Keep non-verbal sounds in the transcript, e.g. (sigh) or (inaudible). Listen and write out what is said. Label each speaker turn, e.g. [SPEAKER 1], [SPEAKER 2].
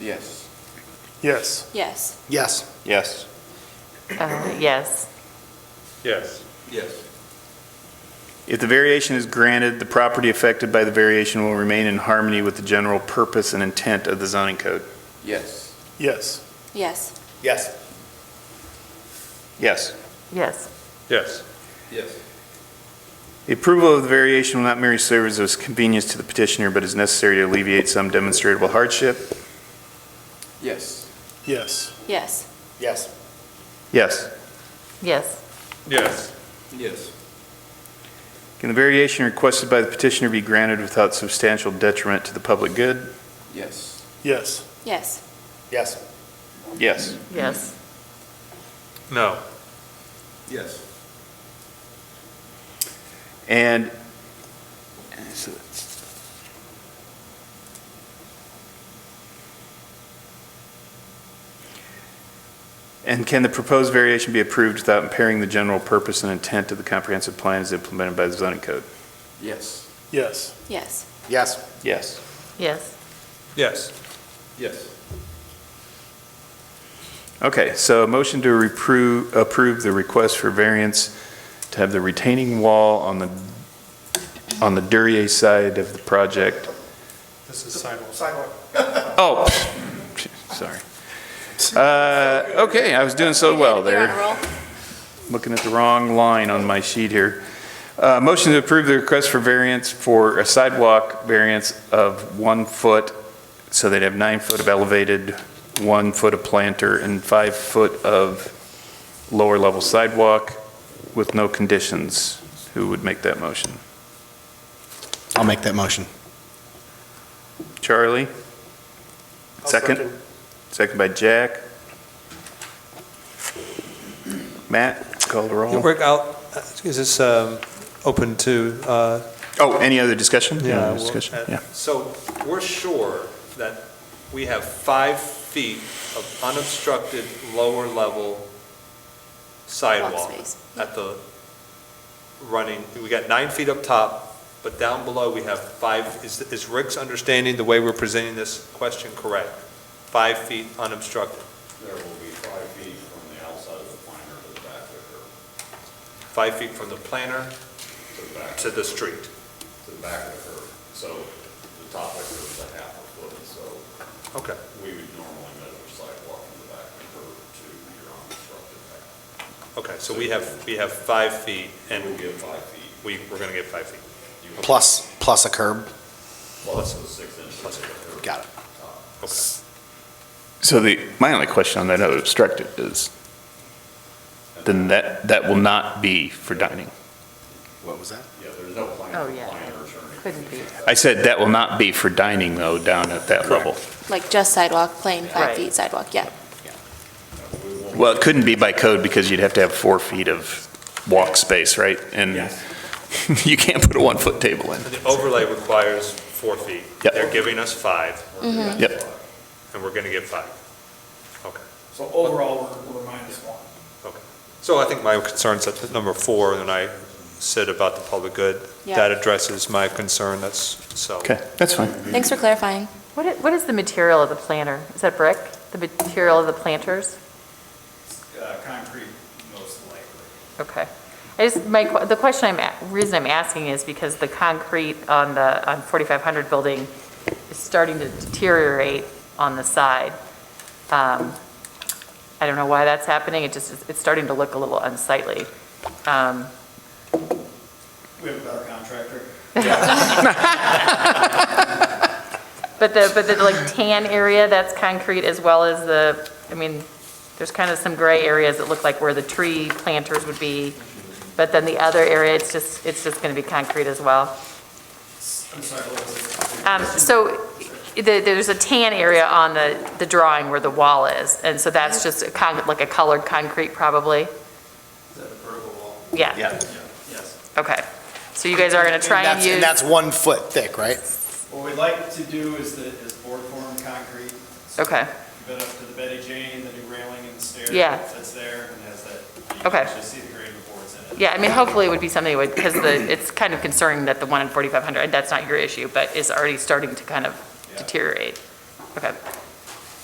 [SPEAKER 1] Yes.
[SPEAKER 2] Yes.
[SPEAKER 3] Yes.
[SPEAKER 4] Yes.
[SPEAKER 1] Yes.
[SPEAKER 5] Uh, Yes,
[SPEAKER 2] Yes.
[SPEAKER 1] Yes. If the variation is granted, the property affected by the variation will remain in harmony with the general purpose and intent of the zoning code. Yes.
[SPEAKER 2] Yes.
[SPEAKER 3] Yes.
[SPEAKER 4] Yes.
[SPEAKER 1] Yes.
[SPEAKER 5] yes,
[SPEAKER 2] Yes.
[SPEAKER 4] Yes.
[SPEAKER 1] The approval of the variation will not merely serve as a convenience to the petitioner, but is necessary to alleviate some demonstrable hardship.
[SPEAKER 4] Yes.
[SPEAKER 2] Yes.
[SPEAKER 3] Yes.
[SPEAKER 4] Yes.
[SPEAKER 1] Yes.
[SPEAKER 5] yes,
[SPEAKER 2] Yes.
[SPEAKER 4] Yes.
[SPEAKER 1] Can the variation requested by the petitioner be granted without substantial detriment to the public good?
[SPEAKER 4] Yes.
[SPEAKER 2] Yes.
[SPEAKER 3] Yes.
[SPEAKER 4] Yes.
[SPEAKER 1] Yes.
[SPEAKER 5] yes,
[SPEAKER 2] No.
[SPEAKER 4] Yes.
[SPEAKER 1] And, and can the proposed variation be approved without impairing the general purpose and intent of the comprehensive plan as implemented by the zoning code?
[SPEAKER 4] Yes.
[SPEAKER 2] Yes.
[SPEAKER 3] Yes.
[SPEAKER 4] Yes.
[SPEAKER 1] Yes.
[SPEAKER 5] yes,
[SPEAKER 2] Yes.
[SPEAKER 4] Yes.
[SPEAKER 1] Okay, so a motion to repro- approve the request for variance to have the retaining wall on the, on the Duryea side of the project.
[SPEAKER 2] This is sidewalk.
[SPEAKER 1] Oh, sorry. Uh, Okay, I was doing so well
[SPEAKER 3] You're on a
[SPEAKER 1] there,
[SPEAKER 3] roll.
[SPEAKER 1] looking at the wrong line on my sheet here. Uh, Motion to approve the request for variance for a sidewalk variance of one foot, so they'd have nine foot of elevated, one foot of planter, and five foot of lower level sidewalk with no conditions. Who would make that motion?
[SPEAKER 4] I'll make that motion.
[SPEAKER 1] Charlie? Second? Second by Jack. Matt, call the roll.
[SPEAKER 6] Rick, I'll, uh, is this um, open to, uh,
[SPEAKER 1] Oh, any other discussion? Any
[SPEAKER 6] yeah,
[SPEAKER 1] other
[SPEAKER 6] well,
[SPEAKER 1] discussion?
[SPEAKER 6] uh,
[SPEAKER 1] Yeah.
[SPEAKER 6] So we're sure that we have five feet of unobstructed lower-level
[SPEAKER 3] Walk
[SPEAKER 6] sidewalk
[SPEAKER 3] space.
[SPEAKER 6] at the running, we got nine feet up top, but down below we have five, is is Rick's understanding, the way we're presenting this question correct? Five feet unobstructed,
[SPEAKER 7] There will be five feet from the outside of the planter to the back of the curb,
[SPEAKER 6] five feet from the planter
[SPEAKER 7] to the back,
[SPEAKER 6] to the street.
[SPEAKER 7] to the back of the curb. So the top of the curb is a half a foot, so
[SPEAKER 6] Okay.
[SPEAKER 7] we would normally measure sidewalk from the back of the curb to your unobstructed path.
[SPEAKER 6] Okay, so we have, we have five feet, and
[SPEAKER 7] We'll get five feet,
[SPEAKER 6] we, we're gonna get five feet.
[SPEAKER 4] Plus, plus a curb.
[SPEAKER 7] plus the six inches of the curb.
[SPEAKER 4] Got it.
[SPEAKER 6] Okay.
[SPEAKER 1] So the, my only question on that other obstructed is, then that, that will not be for dining.
[SPEAKER 4] What was that?
[SPEAKER 7] Yeah, there's no
[SPEAKER 5] Oh,
[SPEAKER 7] planter,
[SPEAKER 5] yeah.
[SPEAKER 7] planters or anything.
[SPEAKER 5] couldn't be,
[SPEAKER 1] I said that will not be for dining, though, down at that level.
[SPEAKER 3] Like just sidewalk, plain five
[SPEAKER 5] Right.
[SPEAKER 3] feet sidewalk, yeah.
[SPEAKER 1] Well, it couldn't be by code because you'd have to have four feet of walk space, right? And (laughs) you can't put a one-foot table in.
[SPEAKER 6] And the overlay requires four feet.
[SPEAKER 1] Yep.
[SPEAKER 6] They're giving us five,
[SPEAKER 1] Yep.
[SPEAKER 6] and we're gonna get five. Okay,
[SPEAKER 8] So overall, we're, we're minus one.
[SPEAKER 6] okay. So I think my concern's at number four, and I said about the public good.
[SPEAKER 3] Yeah.
[SPEAKER 6] That addresses my concern, that's, so.
[SPEAKER 1] Okay, that's fine.
[SPEAKER 3] Thanks for clarifying.
[SPEAKER 5] what i- what is the material of the planter? Is that brick? The material of the planters?
[SPEAKER 8] Uh, concrete most likely.
[SPEAKER 5] Okay. I just, my, que- the question I'm, a- reason I'm asking is because the concrete on the, on 4500 building is starting to deteriorate on the side. Um, I don't know why that's happening, it just, it's starting to look a little unsightly. Um,
[SPEAKER 8] We have a better contractor.
[SPEAKER 5] (laughs) But the, but the like tan area, that's concrete as well as the, I mean, there's kind of some gray areas that look like where the tree planters would be. But then the other area, it's just, it's just going to be concrete as well.
[SPEAKER 8] I'm sorry, what was it?
[SPEAKER 5] Um, So the- there's a tan area on the, the drawing where the wall is. And so that's just a con, like a colored concrete probably?
[SPEAKER 8] Is that a vertical wall?
[SPEAKER 5] Yeah,
[SPEAKER 4] Yeah.
[SPEAKER 8] Yes.
[SPEAKER 5] okay. So you guys are going to try and
[SPEAKER 4] that's-
[SPEAKER 5] use.
[SPEAKER 4] And that's one foot thick, right?
[SPEAKER 8] What we'd like to do is the, is board form concrete. So
[SPEAKER 5] Okay.
[SPEAKER 8] you've Been up to the Betty Jane, the new railing and the stairs.
[SPEAKER 5] Yeah.
[SPEAKER 8] That's there and has that. You
[SPEAKER 5] Okay.
[SPEAKER 8] can actually see the grade boards in it.
[SPEAKER 5] Yeah, I mean, hopefully it would be something that would, because the, it's kind of concerning that the one in 4,500, that's not your issue, but is already starting to kind of
[SPEAKER 8] Yeah.
[SPEAKER 5] deteriorate. Okay,